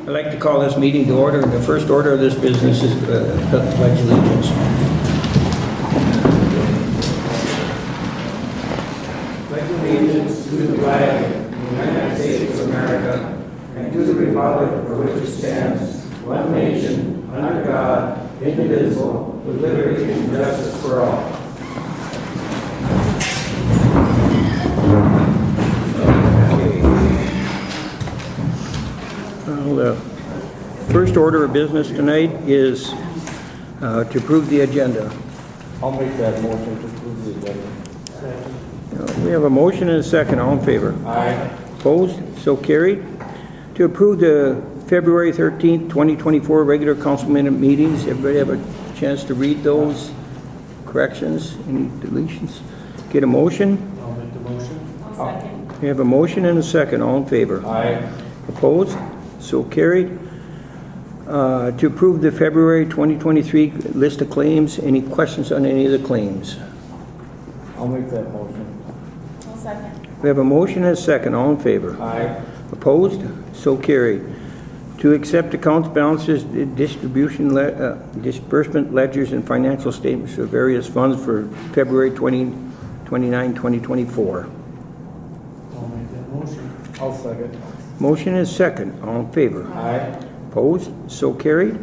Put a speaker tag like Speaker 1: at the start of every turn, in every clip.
Speaker 1: I'd like to call this meeting to order, and the first order of this business is uh, the pledge of allegiance. Pledge allegiance to the flag of the United States of America and to the republic for which it stands, one nation, under God, indivisible, with liberty and justice for all. Well, the first order of business tonight is uh, to approve the agenda.
Speaker 2: I'll make that motion to approve the agenda.
Speaker 1: Uh, We have a motion and a second, all in favor?
Speaker 2: Aye.
Speaker 1: Opposed? So carried. To approve the February 13th, 2024 regular council minute meetings, everybody have a chance to read those corrections and deletions? Get a motion?
Speaker 2: I'll make the motion.
Speaker 1: We have a motion and a second, all in favor?
Speaker 2: Aye.
Speaker 1: Opposed? So carried. Uh, To approve the February 2023 list of claims, any questions on any of the claims?
Speaker 2: I'll make that motion.
Speaker 3: I'll second.
Speaker 1: We have a motion and a second, all in favor.
Speaker 2: Aye.
Speaker 1: Opposed? So carried. To accept accounts balances, distribution, le- uh, disbursement ledgers, and financial statements of various funds for February 20 29, 2024.
Speaker 2: I'll make that motion. I'll second.
Speaker 1: Motion and second, all in favor.
Speaker 2: Aye.
Speaker 1: Opposed? So carried.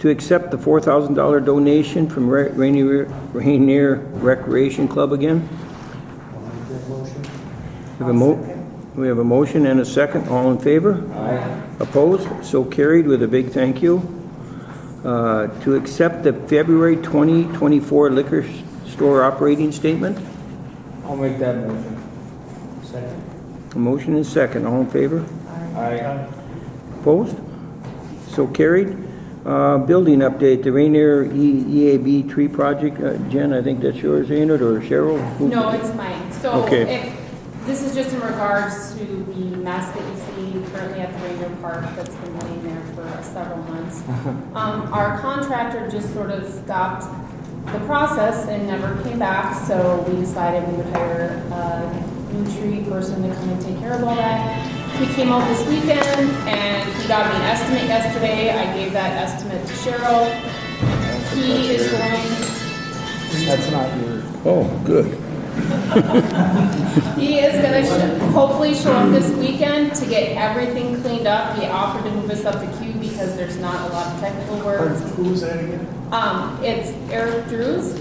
Speaker 1: To accept the $4,000 donation from Ra- Rainier Rainier Recreation Club again.
Speaker 2: I'll make that motion.
Speaker 1: We have a mo- We have a motion and a second. All in favor?
Speaker 2: Aye.
Speaker 1: Opposed? So carried with a big thank you. Uh, To accept the February 2024 liquor s- store operating statement.
Speaker 2: I'll make that motion. Second.
Speaker 1: A motion and second. All in favor?
Speaker 2: Aye.
Speaker 1: Opposed? So carried. Uh, Building update, the Rainier E- EAB tree project. Uh, Jen, I think that's yours, ain't it, or Cheryl? Who-
Speaker 3: No, it's mine. So
Speaker 1: Okay.
Speaker 3: if, this is just in regards to the mess that you see currently at the Ranger Park that's been laying there for several months. Um, our contractor just sort of stopped the process and never came back, so we decided we would hire a new tree person to come and take care of all that. He came out this weekend and he got me an estimate yesterday. I gave that estimate to Cheryl. He is going
Speaker 2: That's not yours.
Speaker 1: Oh, good.
Speaker 3: He is gonna sh- hopefully show up this weekend to get everything cleaned up. He offered to move us up the queue because there's not a lot of technical work.
Speaker 2: Who was that again?
Speaker 3: Um, it's Eric Drews.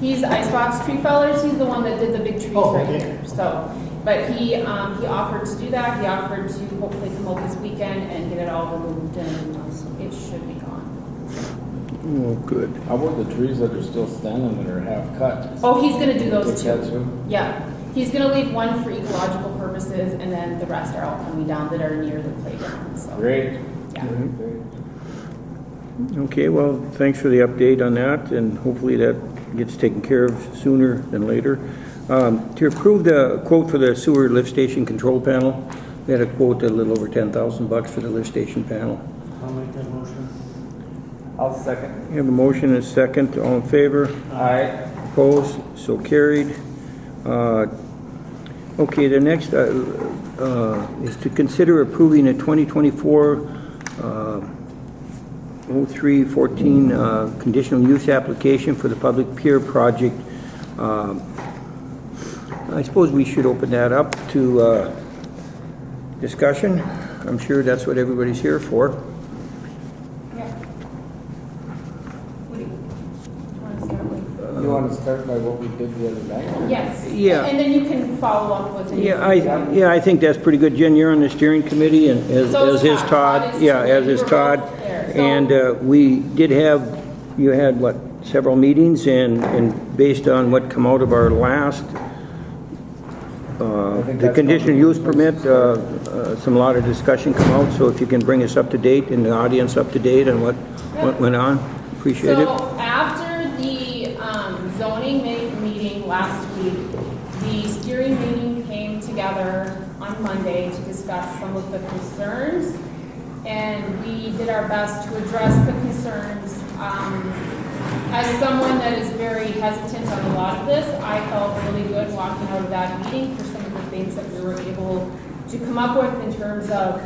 Speaker 3: He's Icebox Tree Fellers. He's the one that did the big trees
Speaker 2: Oh,
Speaker 3: right
Speaker 2: okay.
Speaker 3: here, so. But he, um, he offered to do that. He offered to hopefully come up this weekend and get it all removed and um, it should be gone.
Speaker 1: Oh, good.
Speaker 2: How about the trees that are still standing that are half cut?
Speaker 3: Oh, he's gonna do
Speaker 2: Take
Speaker 3: those two.
Speaker 2: that too?
Speaker 3: Yeah, he's gonna leave one for ecological purposes, and then the rest are all coming down that are near the playground, so,
Speaker 2: Great.
Speaker 3: yeah.
Speaker 1: Mm-hmm.
Speaker 2: Great.
Speaker 1: Okay, well, thanks for the update on that, and hopefully that gets taken care of sooner than later. Um, To approve the quote for the sewer lift station control panel, we had a quote a little over 10000 bucks for the lift station panel.
Speaker 2: I'll make that motion. I'll second.
Speaker 1: We have a motion and a second. All in favor?
Speaker 2: Aye.
Speaker 1: Opposed? So carried. Uh, Okay, the next uh, uh, is to consider approving a uh, 2024-0314 uh, conditional use application for the public pier project. Um, I suppose we should open that up to uh, discussion. I'm sure that's what everybody's here for.
Speaker 3: Yeah. What do you, do you wanna start with?
Speaker 2: You want to start by what we did the other night?
Speaker 3: Yes.
Speaker 1: Yeah.
Speaker 3: And then you can follow up with it.
Speaker 1: Yeah, I, yeah, I think that's pretty good. Jen, you're on the steering committee, and as
Speaker 3: So
Speaker 1: as is
Speaker 3: is Todd. Todd
Speaker 1: Todd.
Speaker 3: is-
Speaker 1: Yeah, as
Speaker 3: we
Speaker 1: is
Speaker 3: were
Speaker 1: Todd.
Speaker 3: both there, so-
Speaker 1: And uh, we did have, you had, what, several meetings, and, and based on what come out of our last, uh,
Speaker 2: I think
Speaker 1: the
Speaker 2: that's
Speaker 1: conditional
Speaker 2: probably-
Speaker 1: use permit, uh, uh, some lot of discussion come out, so if you can bring us up to date and the audience up to date on what, what
Speaker 3: Yeah.
Speaker 1: went on, appreciate it.
Speaker 3: So after the um, zoning ma- meeting last week, the steering meeting came together on Monday to discuss some of the concerns. And we did our best to address the concerns. Um, As someone that is very hesitant on a lot of this, I felt really good walking out of that meeting for some of the things that we were able to come up with in terms of